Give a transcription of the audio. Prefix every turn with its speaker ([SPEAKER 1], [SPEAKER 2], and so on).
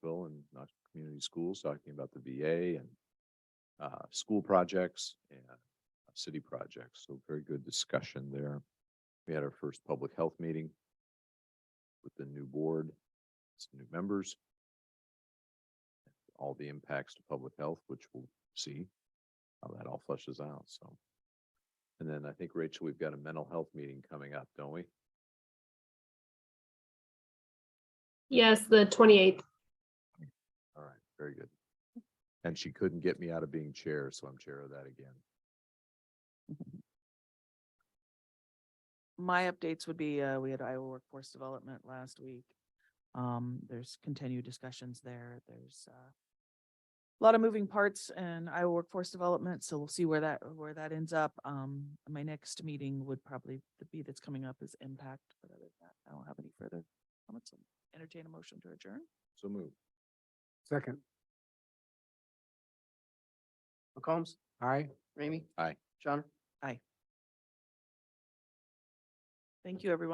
[SPEAKER 1] schools, talking about the VA and uh, school projects and uh, city projects. So very good discussion there. We had our first public health meeting with the new board, some new members. All the impacts to public health, which we'll see how that all flushes out, so. And then I think, Rachel, we've got a mental health meeting coming up, don't we?
[SPEAKER 2] Yes, the twenty-eighth.
[SPEAKER 1] All right, very good. And she couldn't get me out of being chair, so I'm chair of that again.
[SPEAKER 3] my updates would be, uh, we had Iowa Workforce Development last week. Um, there's continued discussions there. There's, uh, a lot of moving parts in Iowa Workforce Development, so we'll see where that, where that ends up. Um, my next meeting would probably, the be that's coming up is impact, but other than that, I don't have any further comments. Entertain a motion to adjourn.
[SPEAKER 1] So move.
[SPEAKER 4] Second. McCombs? Aye. Ramey?
[SPEAKER 1] Aye.
[SPEAKER 4] Johnner?
[SPEAKER 3] Thank you, everyone.